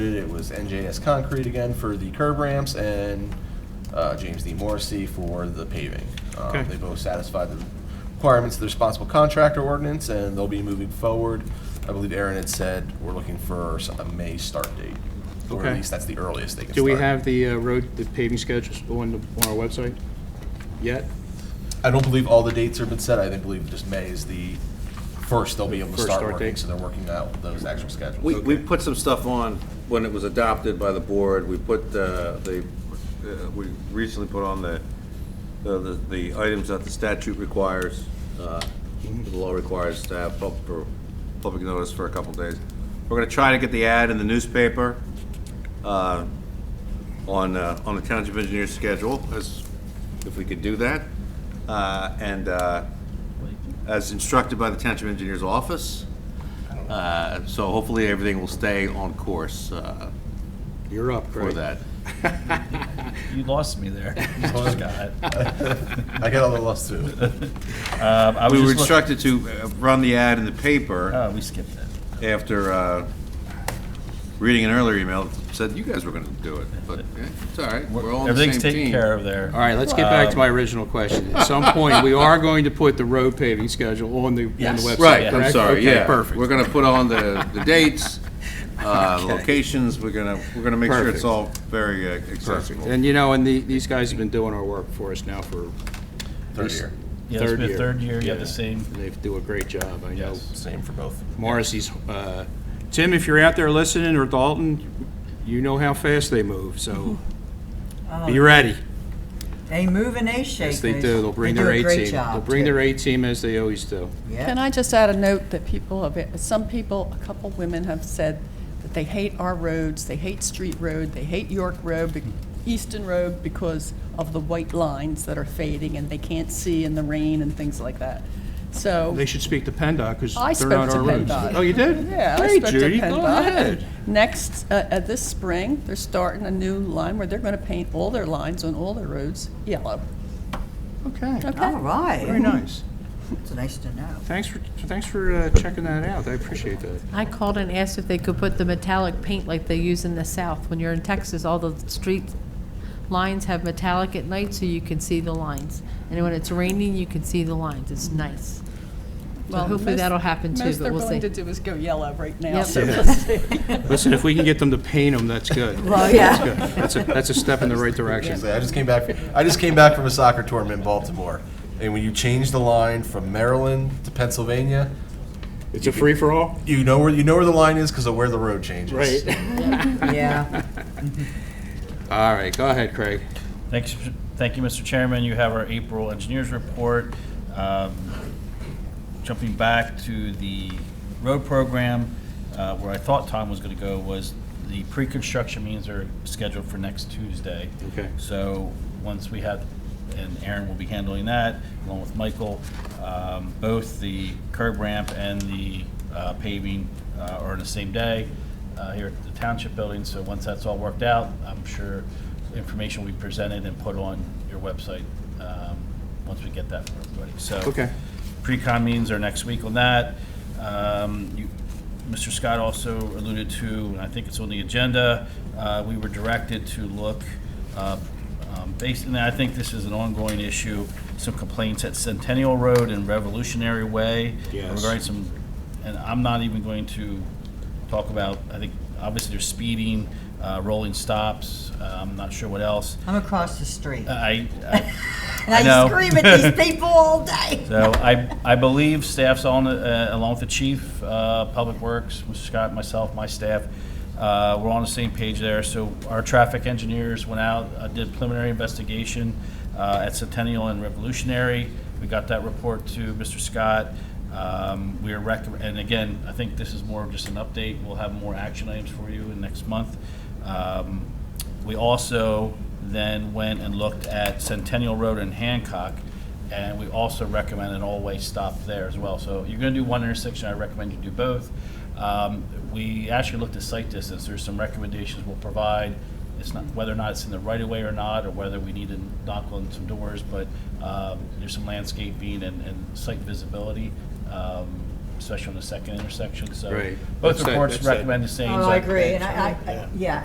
It was NJS Concrete again for the curb ramps and uh, James D. Morrissey for the paving. Um, Okay. They both satisfied the requirements of the responsible contractor ordinance, and they'll be moving forward. I believe Aaron had said, we're looking for s- a May start date. Or at Okay. least that's the earliest they can start. Do we have the uh, road, the paving schedules on, the- on our website yet? I don't believe all the dates have been set. I think believe just May is the first they'll be able to First start start working, date. so they're working out those actual schedules. We, we put some stuff on when it was adopted by the board. We put, uh, the, uh, we recently put on the, the, the items that the statute requires, uh, the law requires to have pub, for public notice for a couple days. We're gonna try to get the ad in the newspaper, uh, on, uh, on the township engineer's schedule, as, if we could do that. Uh, and, uh, as instructed by the township engineer's office. Uh, So hopefully everything will stay on course uh, You're up, Craig. for that. You lost me there, Scott. I got a little lost too. Um, I was We were just look- instructed to uh, run the ad in the paper Oh, we skipped it. after uh, reading an earlier email that said you guys were going to do it, but eh, it's all right, we're all on the same team. Everything's taken care of there. Um, All right, let's get back to my original question. At some point, we are going to put the road paving schedule on the, on the Yes. website, Right, I'm correct? sorry, Okay, yeah. We're perfect. going to put on the the dates, uh, locations, we're going to, we're going to make sure it's Perfect. all very uh, accessible. And you know, and the, these guys have been doing our work for us now for, Third year. Yeah, it's third been year. third year, you have the Yeah. same. they do a great job, I know. Same for both. Morrissey's, uh, Tim, if you're out there listening, or Dalton, you know how fast they move, so be ready. They move and they shake. Yes, they do, they'll bring their do a A great team. They'll job, bring too. their A team as they always do. Yeah. Can I just add a note that people, have some people, a couple women have said that they hate our roads, they hate Street Road, they hate York Road, be- Easton Road because of the white lines that are fading and they can't see in the rain and things like that. So. They should speak to PennDOT, because I they're not spoke to our roads. PennDOT. Oh, you did? Yeah, I Great, spoke to Judy, go PennDOT. ahead. Next, uh, uh, this spring, they're starting a new line where they're going to paint all their lines on all their roads yellow. Oh. Okay, All Okay? very right. nice. It's nice to know. Thanks for, thanks for uh, checking that out, I appreciate that. I called and asked if they could put the metallic paint like they use in the south. When you're in Texas, all the street lines have metallic at night, so you can see the lines. And when it's raining, you can see the lines. It's nice. So Well, hopefully most- that'll happen too, Most but they're we'll willing to see. do is go yellow right now. Yep. so we'll see. Listen, if we can get them to paint them, that's good. Well, yeah. That's a, that's a step in the right direction. I just came back. I just came back from a soccer tournament in Baltimore, and when you change the line from Maryland to Pennsylvania, It's a free-for-all? you know where you know where the line is because of where the road changes. Yeah. All right, go ahead, Craig. Thanks, thank you, Mr. Chairman. You have our April engineers report. Um, Jumping back to the road program, uh, where I thought Tom was going to go was the pre-construction meetings are scheduled for next Tuesday. Okay. So once we have, and Aaron will be handling that along with Michael, um, both the curb ramp and the uh, paving uh, are on the same day uh, here at the township building. So once that's all worked out, I'm sure information will be presented and put on your website um, once we get that for everybody. So Okay. pre-con meetings are next week on that. Um, you- Mr. Scott also alluded to, and I think it's on the agenda, uh, we were directed to look, uh, um, based, and I think this is an ongoing issue, some complaints at Centennial Road and Revolutionary Way. Yes. Regarding some, and I'm not even going to talk about, I think, obviously there's speeding, uh, rolling stops, uh, I'm not sure what else. I'm across the street. I, I And Uh, I know. I scream at these people all day. So I, I believe staff's on, uh, along with the chief, uh, Public Works, Mr. Scott, myself, my staff, uh, we're on the same page there. So our traffic engineers went out, uh, did preliminary investigation uh, at Centennial and Revolutionary. We got that report to Mr. Scott. Um, We are rec, and again, I think this is more of just an update. We'll have more action items for you in next month. Um, We also then went and looked at Centennial Road in Hancock. And we also recommend an all-way stop there as well. So you're going to do one intersection, I recommend you do both. Um, We actually looked at site distance, there's some recommendations we'll provide. It's not, whether or not it's in the right-of-way or not, or whether we need to knock on some doors, but um, there's some landscaping and, and site visibility um, especially on the second intersection, so. Right. Both That's that- reports that's that. recommend the same. Oh, so I agree, and I, I- I, yeah,